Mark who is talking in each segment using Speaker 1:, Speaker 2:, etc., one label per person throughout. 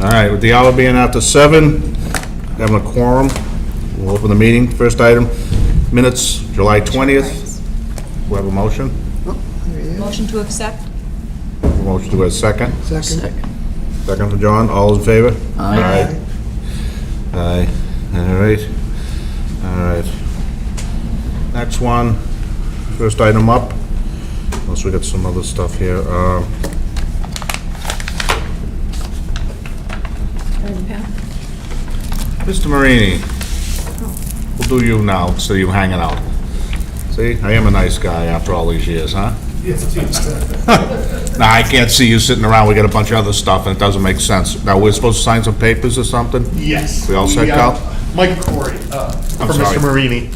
Speaker 1: All right, with the hour being after seven, having a quorum, we'll open the meeting. First item, minutes, July 20th. We have a motion?
Speaker 2: Motion to accept?
Speaker 1: Motion to a second.
Speaker 3: Second.
Speaker 1: Second for John, all in favor?
Speaker 3: Aye.
Speaker 1: Aye. All right, all right. Next one, first item up, unless we got some other stuff here. Uh, Mr. Marini, we'll do you now, so you're hanging out. See, I am a nice guy after all these years, huh? Nah, I can't see you sitting around, we got a bunch of other stuff, and it doesn't make sense. Now, we're supposed to sign some papers or something?
Speaker 4: Yes.
Speaker 1: We all set,
Speaker 4: uh,
Speaker 1: Cal?
Speaker 4: Mike Corey, uh, from
Speaker 1: sorry.
Speaker 4: Mr. Marini.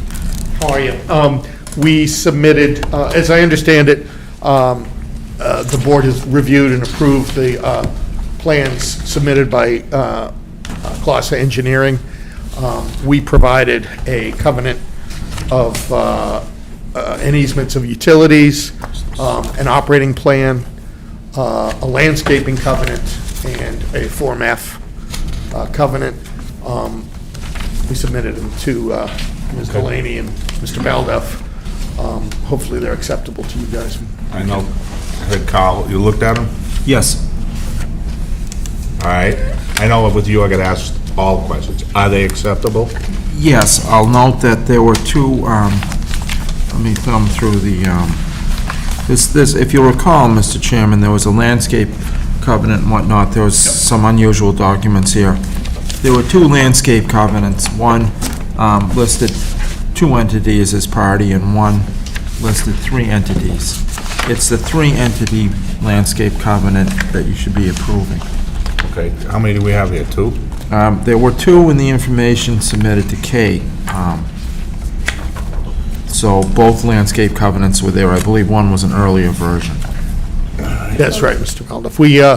Speaker 4: How are you? Um, We submitted, uh, as I understand it, um, uh, the board has reviewed and approved the uh, plans submitted by uh, uh, Glossa Engineering. Um, We provided a covenant of uh, uh, an easements of utilities, um, an operating plan, uh, a landscaping covenant, and a Form F uh, covenant. Um, We submitted them to uh, Ms. Delaney and Mr. Baldoff. Um, Hopefully, they're acceptable to you guys.
Speaker 1: I know, I heard Carl, you looked at him?
Speaker 5: Yes.
Speaker 1: All right, I know with you, I get asked all questions. Are they acceptable?
Speaker 5: Yes, I'll note that there were two, um, let me thumb through the, um, this, this, if you recall, Mr. Chairman, there was a landscape covenant and whatnot, there was some unusual documents here. There were two landscape covenants, one um, listed two entities as party, and one listed three entities. It's the three-entity landscape covenant that you should be approving.
Speaker 1: Okay, how many do we have here, two?
Speaker 5: Um, There were two in the information submitted to Kate. um, So both landscape covenants were there. I believe one was an earlier version.
Speaker 4: That's right, Mr. Baldoff. We, uh,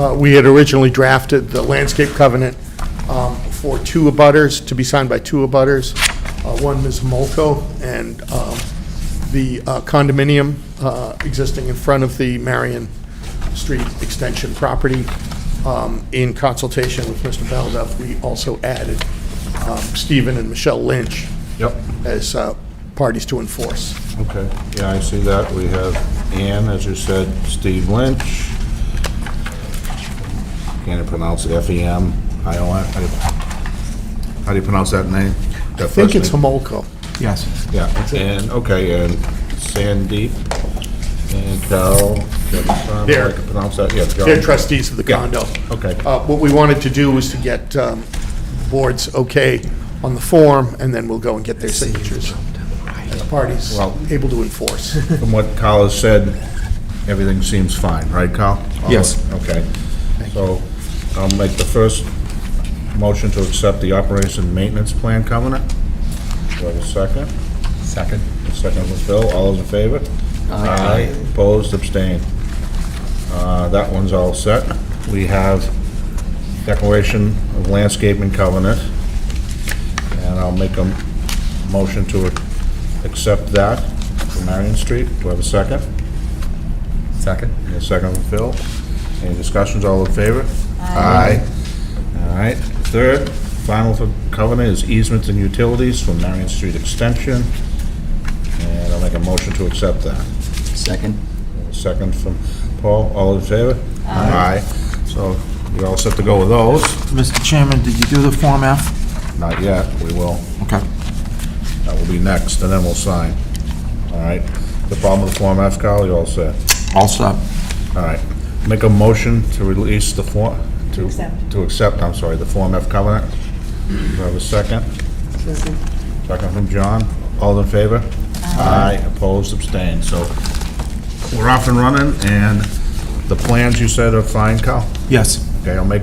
Speaker 4: uh, we had originally drafted the landscape covenant um, for two abutters, to be signed by two abutters, Uh, one Ms. Molko and um, the uh, condominium uh, existing in front of the Marion Street Extension property. Um, In consultation with Mr. Baldoff, we also added um, Stephen and Michelle Lynch
Speaker 1: Yep.
Speaker 4: as uh, parties to enforce.
Speaker 1: Okay, yeah, I see that. We have Ann, as you said, Steve Lynch. Can't even pronounce E it, F-E-M, I-O-N. How do you- How do you pronounce that name?
Speaker 4: I think it's Homolko.
Speaker 5: Yes.
Speaker 1: Yeah, and, okay, and Sandeep and Carol. Johnson,
Speaker 4: They're-
Speaker 1: I can pronounce that, yeah.
Speaker 4: They're
Speaker 1: Johnson.
Speaker 4: trustees of the
Speaker 1: Yeah,
Speaker 4: condo.
Speaker 1: okay.
Speaker 4: Uh, What we wanted to do was to get um, boards okay on the form, and then we'll go and get their signatures as parties
Speaker 1: Well-
Speaker 4: able to enforce.
Speaker 1: From what Kyle has said, everything seems fine, right, Kyle? Uh,
Speaker 5: Yes.
Speaker 1: Okay. So I'll make the first motion to accept the operation maintenance plan covenant. Do I have a second? Second. Second was Phil. All those in favor? Aye. Opposed, abstained. Uh, That one's all set. We have declaration of landscaping covenant, and I'll make a motion to accept that for Marion Street. Do I have a second? Second. A second from Phil. Any discussions, all in favor? Aye. All right, third, final for covenant is easements and utilities for Marion Street Extension, and I'll make a motion to accept that.
Speaker 3: Second.
Speaker 1: Second from Paul, all in favor? Aye. So you're all set to go with those?
Speaker 5: Mr. Chairman, did you do the Form F?
Speaker 1: Not yet, we will.
Speaker 5: Okay.
Speaker 1: That will be next, and then we'll sign. All right. The problem with Form F, Kyle, you all set?
Speaker 5: All set.
Speaker 1: All right. Make a motion to release the Form... To
Speaker 2: accept.
Speaker 1: To accept, I'm sorry, the Form F covenant. Do I have a second? Second from John. All in favor? Aye. Opposed, abstained. So we're off and running, and the plans you said are fine, Kyle?
Speaker 5: Yes.
Speaker 1: Okay, I'll make a